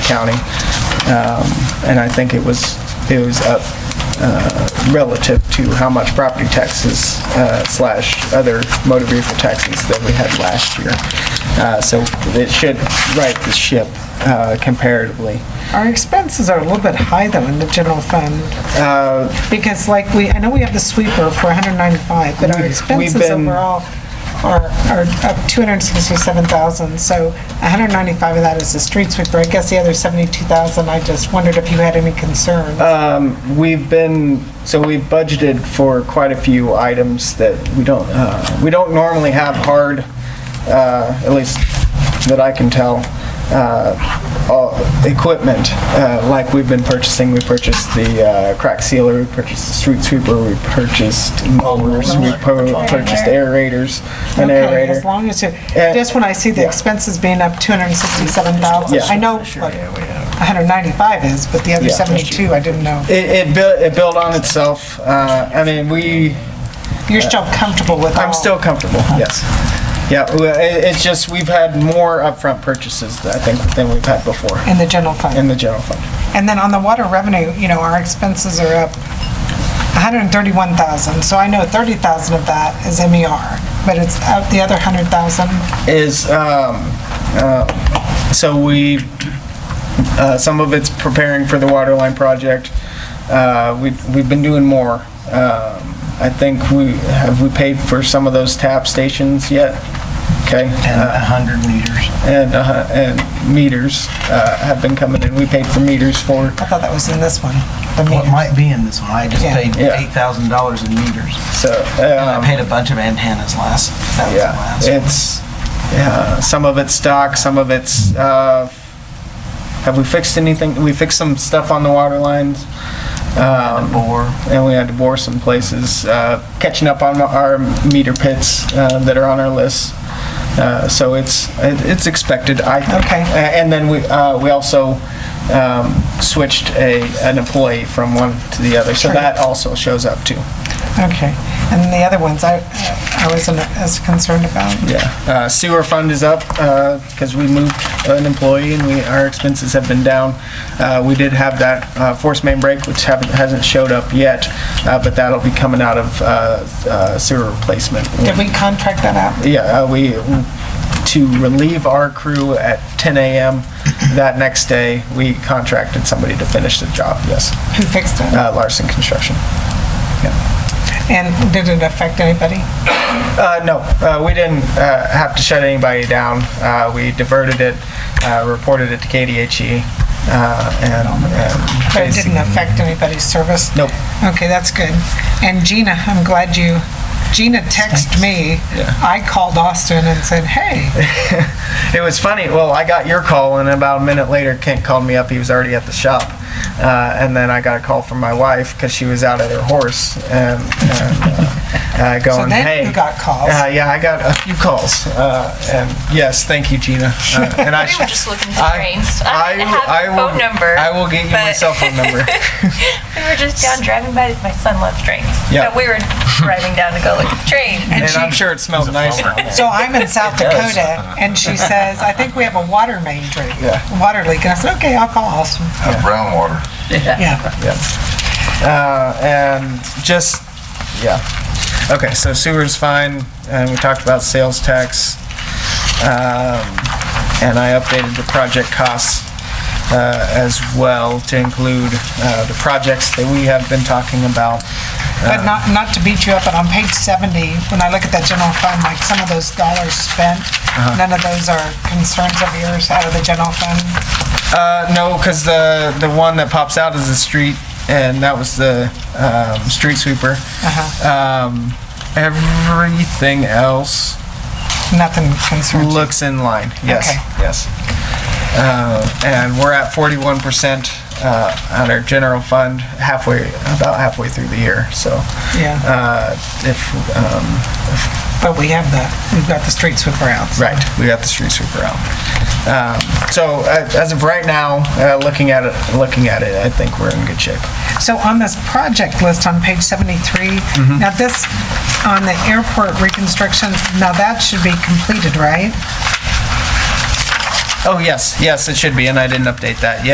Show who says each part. Speaker 1: county. Um, And I think it was, it was up uh, relative to how much property taxes uh, slash other motor vehicle taxes that we had last year. Uh, So it should right the ship uh, comparatively.
Speaker 2: Our expenses are a little bit high, though, in the general fund.
Speaker 1: Uh,
Speaker 2: Because like we, I know we have the sweeper for 195, but
Speaker 1: We've-
Speaker 2: our
Speaker 1: we've
Speaker 2: expenses
Speaker 1: been-
Speaker 2: overall are, are up 267,000. So 195 of that is the street sweeper. I guess the other 72,000, I just wondered if you had any concern.
Speaker 1: Uh, We've been, so we've budgeted for quite a few items that we don't, uh, we don't normally have hard, uh, at least that I can tell, uh, all- equipment, uh, like we've been purchasing. We purchased the uh, crack sealer, we purchased the street sweeper, we purchased mowers, we pur- purchased aerators, an
Speaker 2: Okay, As
Speaker 1: aerator.
Speaker 2: long as you,
Speaker 1: Uh,
Speaker 2: just when I see the
Speaker 1: yeah.
Speaker 2: expenses being up 267,000,
Speaker 1: Yeah.
Speaker 2: I know like 195 is, but the other
Speaker 1: Yeah.
Speaker 2: 72, I didn't know.
Speaker 1: It, it built, it built on itself. Uh, I mean, we,
Speaker 2: You're still comfortable with all?
Speaker 1: I'm still comfortable, yes. Yeah, well, it- it's just, we've had more upfront purchases, I think, than we've had before
Speaker 2: In the general fund?
Speaker 1: in the general fund.
Speaker 2: And then on the water revenue, you know, our expenses are up 131,000, so I know 30,000 of that is MER, but it's out the other 100,000.
Speaker 1: Is, um, uh, so we, uh, some of it's preparing for the water line project. Uh, We've, we've been doing more. Um, I think we, have we paid for some of those tap stations yet? Okay. uh,
Speaker 3: and 100 meters.
Speaker 1: And, uh, and meters uh, have been coming in. We paid for meters for,
Speaker 2: I thought that was in this one. the
Speaker 3: Well, it
Speaker 2: meter.
Speaker 3: might be in this one, I just
Speaker 2: Yeah.
Speaker 3: paid
Speaker 1: Yeah.
Speaker 3: $8,000 in meters.
Speaker 1: so.
Speaker 3: And
Speaker 1: um,
Speaker 3: I paid a bunch of antennas last, that was the
Speaker 1: Yeah,
Speaker 3: last.
Speaker 1: it's, yeah, some of it's stock, some of it's, uh, have we fixed anything? We fixed some stuff on the water lines. um,
Speaker 3: Bore.
Speaker 1: And we had to bore some places, uh, catching up on our meter pits uh, that are on our list. Uh, So it's, it- it's expected, I think.
Speaker 2: Okay.
Speaker 1: A- And then we, uh, we also um, switched a, an employee from one to the other, so
Speaker 2: Sure.
Speaker 1: that also shows up too.
Speaker 2: Okay. And the other ones I I wasn't as concerned about.
Speaker 1: Yeah, uh, sewer fund is up, uh, because we moved an employee and we, our expenses have been down. Uh, we did have that, uh, force main break, which haven't, hasn't showed up yet, uh, but that'll be coming out of, uh, uh, sewer replacement.
Speaker 2: Did we contract that out?
Speaker 1: Yeah, uh, we, to relieve our crew at ten AM that next day, we contracted somebody to finish the job, yes,
Speaker 2: Who fixed it?
Speaker 1: uh, Larson Construction.
Speaker 2: And did it affect anybody?
Speaker 1: Uh, no, uh, we didn't uh, have to shut anybody down. Uh, we diverted it, uh, reported it to KDHE, uh, and, and
Speaker 2: But it
Speaker 1: basically-
Speaker 2: didn't affect anybody's service?
Speaker 1: Nope.
Speaker 2: Okay, that's good. And Gina, I'm glad you, Gina texted me. I called Austin and said, hey,
Speaker 1: it was funny. Well, I got your call, and about a minute later, Kent called me up. He was already at the shop, uh, and then I got a call from my wife because she was out at her horse, and, and uh, uh, going,
Speaker 2: then
Speaker 1: "Hey,
Speaker 2: you got calls.
Speaker 1: Uh, yeah, I got a few calls, uh, and yes, thank you, Gina. Uh, and I
Speaker 4: We were just looking for
Speaker 1: I-
Speaker 4: trains. I didn't have your
Speaker 1: will-
Speaker 4: phone number,
Speaker 1: I will get you my
Speaker 4: but-
Speaker 1: cell phone number.
Speaker 4: We were just down driving by. My son loves trains.
Speaker 1: Yeah.
Speaker 4: So we were driving down to go look at the train.
Speaker 1: and
Speaker 2: she-
Speaker 1: I'm sure it smells nice. Yeah.
Speaker 2: So I'm in South
Speaker 1: does.
Speaker 2: Dakota, and she says, I think we have a water main drain,
Speaker 1: Yeah.
Speaker 2: water leak. And I said, okay, I'll call Austin.
Speaker 5: brown water.
Speaker 2: Yeah.
Speaker 1: Uh, and just yeah. Okay, so sewer's fine, and we talked about sales tax, um, and I updated the project costs uh, as well to include uh, the projects that we have been talking about.
Speaker 2: But not, not to beat you up, but on page 70, when I look at that general fund, like some of those dollars spent,
Speaker 1: Uh-huh.
Speaker 2: none of those are concerns of yours out of the general fund.
Speaker 1: Uh, no, because the the one that pops out is the street, and that was the um, street sweeper.
Speaker 2: Uh-huh.
Speaker 1: Um, everything else
Speaker 2: Nothing concerns. you.
Speaker 1: looks in line. Yes,
Speaker 2: Okay.
Speaker 1: yes. Uh, and we're at 41% uh, on our general fund halfway, about halfway through the year. So
Speaker 2: Yeah,
Speaker 1: uh, if um,
Speaker 2: but we have the, we've got the street sweeper out.
Speaker 1: Right, we got the street sweeper out. Um, So uh, as of right now, uh, looking at it, looking at it, I think we're in good shape.
Speaker 2: So on this project list on page 73, now this, on the airport reconstruction, now that should be completed, right?
Speaker 1: Oh, yes, yes, it should be, and I didn't update that yet.